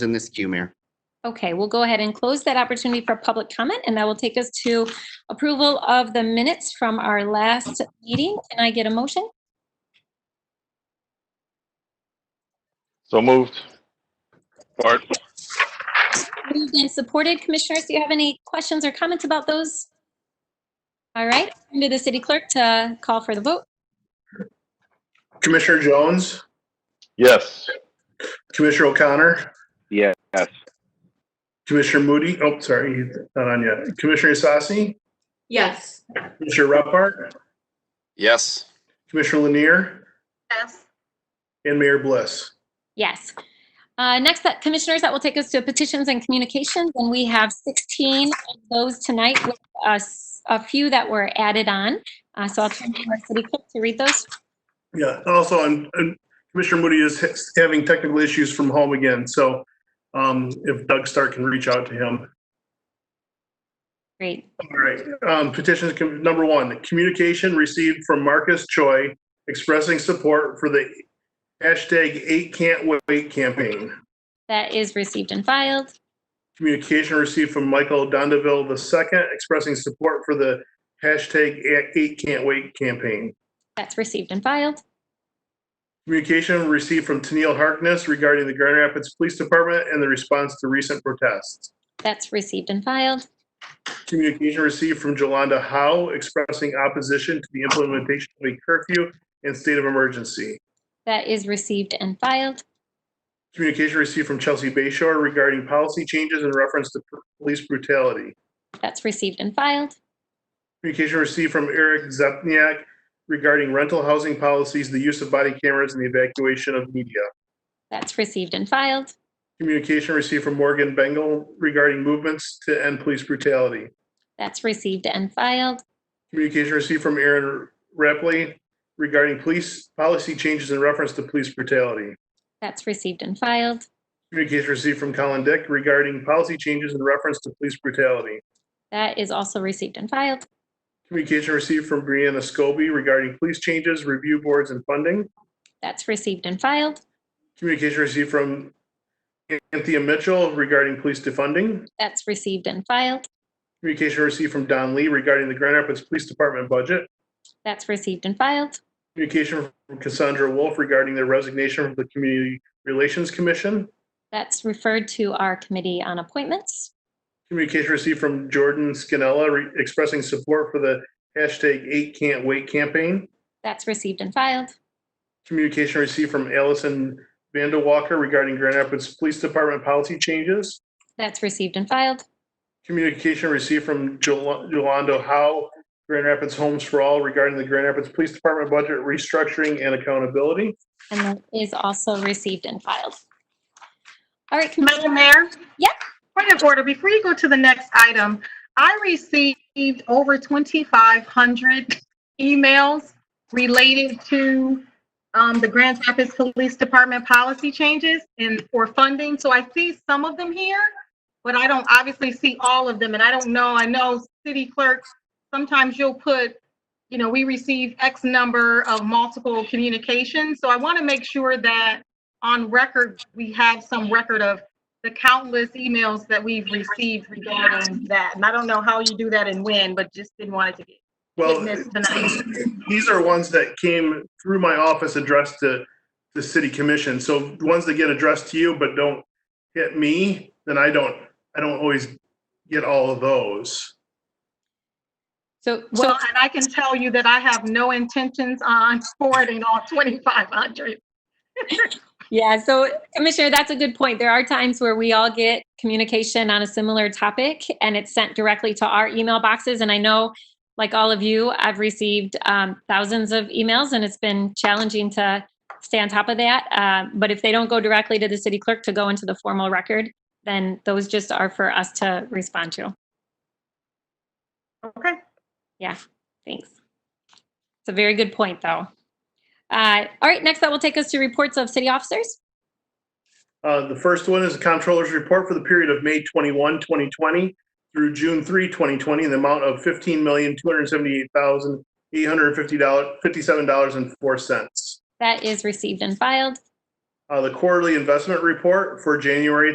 in this queue, Mayor. Okay, we'll go ahead and close that opportunity for public comment, and that will take us to approval of the minutes from our last meeting. Can I get a motion? So moved. Support. Moved and supported. Commissioners, do you have any questions or comments about those? All right, turn to the city clerk to call for the vote. Commissioner Jones, Yes. Commissioner O'Connor, Yes. Commissioner Moody, oh, sorry, he's not on yet. Commissioner Isasi, Yes. Commissioner Repart, Yes. Commissioner Lanier, Yes. and Mayor Bliss. Yes. Uh, Next, that- Commissioners, that will take us to petitions and communications, and we have 16 of those tonight with us, a few that were added on. Uh, So I'll turn to our city clerk to read those. Yeah, also, and and Commissioner Moody is ha- having technical issues from home again, so um, if Doug Stark can reach out to him. Great. All right, um, petitions, com- number one, communication received from Marcus Choi expressing support for the hashtag eight can't wait campaign. That is received and filed. Communication received from Michael Dondeville II expressing support for the hashtag Eight Can't Wait campaign. That's received and filed. Communication received from Tennille Harkness regarding the Grand Rapids Police Department and the response to recent protests. That's received and filed. Communication received from Jolanda Howe expressing opposition to the implementation of a curfew and state of emergency. That is received and filed. Communication received from Chelsea Bayshore regarding policy changes in reference to p- police brutality. That's received and filed. Communication received from Eric Zepniak regarding rental housing policies, the use of body cameras, and the evacuation of media. That's received and filed. Communication received from Morgan Bengal regarding movements to end police brutality. That's received and filed. Communication received from Aaron Rapley regarding police policy changes in reference to police brutality. That's received and filed. Communication received from Colin Dick regarding policy changes in reference to police brutality. That is also received and filed. Communication received from Brianna Scobie regarding police changes, review boards, and funding. That's received and filed. Communication received from Anthea Mitchell regarding police defunding. That's received and filed. Communication received from Don Lee regarding the Grand Rapids Police Department budget. That's received and filed. Communication from Cassandra Wolf regarding their resignation from the Community Relations Commission. That's referred to our committee on appointments. Communication received from Jordan Scanella re- expressing support for the hashtag Eight Can't Wait campaign. That's received and filed. Communication received from Allison Vandewalker regarding Grand Rapids Police Department policy changes. That's received and filed. Communication received from Jol- Yolando Howe, Grand Rapids Homes for All regarding the Grand Rapids Police Department budget restructuring and accountability. And that is also received and filed. All right, Commissioner- Madam Mayor? Yep. Point of order, before you go to the next item, I received over 2,500 emails related to um, the Grand Rapids Police Department policy changes and for funding. So I see some of them here, but I don't obviously see all of them. And I don't know, I know city clerks, sometimes you'll put, you know, we receive X number of multiple communications. So I want to make sure that on record, we have some record of the countless emails that we've received regarding that. And I don't know how you do that and when, but just didn't want it to be Well, missed tonight. these are ones that came through my office addressed to the city commission. So ones that get addressed to you but don't hit me, then I don't, I don't always get all of those. so. Well, and I can tell you that I have no intentions on forwarding all 2,500. Yeah, so Commissioner, that's a good point. There are times where we all get communication on a similar topic and it's sent directly to our email boxes. And I know, like all of you, I've received um, thousands of emails and it's been challenging to stay on top of that. Uh, But if they don't go directly to the city clerk to go into the formal record, then those just are for us to respond to. Okay. Thanks. It's a very good point, though. Uh, All right, next that will take us to reports of city officers. Uh, the first one is the Controller's Report for the period of May 21, 2020 through June 3, 2020, in the amount of $15,278,857.04. That is received and filed. Uh, The Quarterly Investment Report for January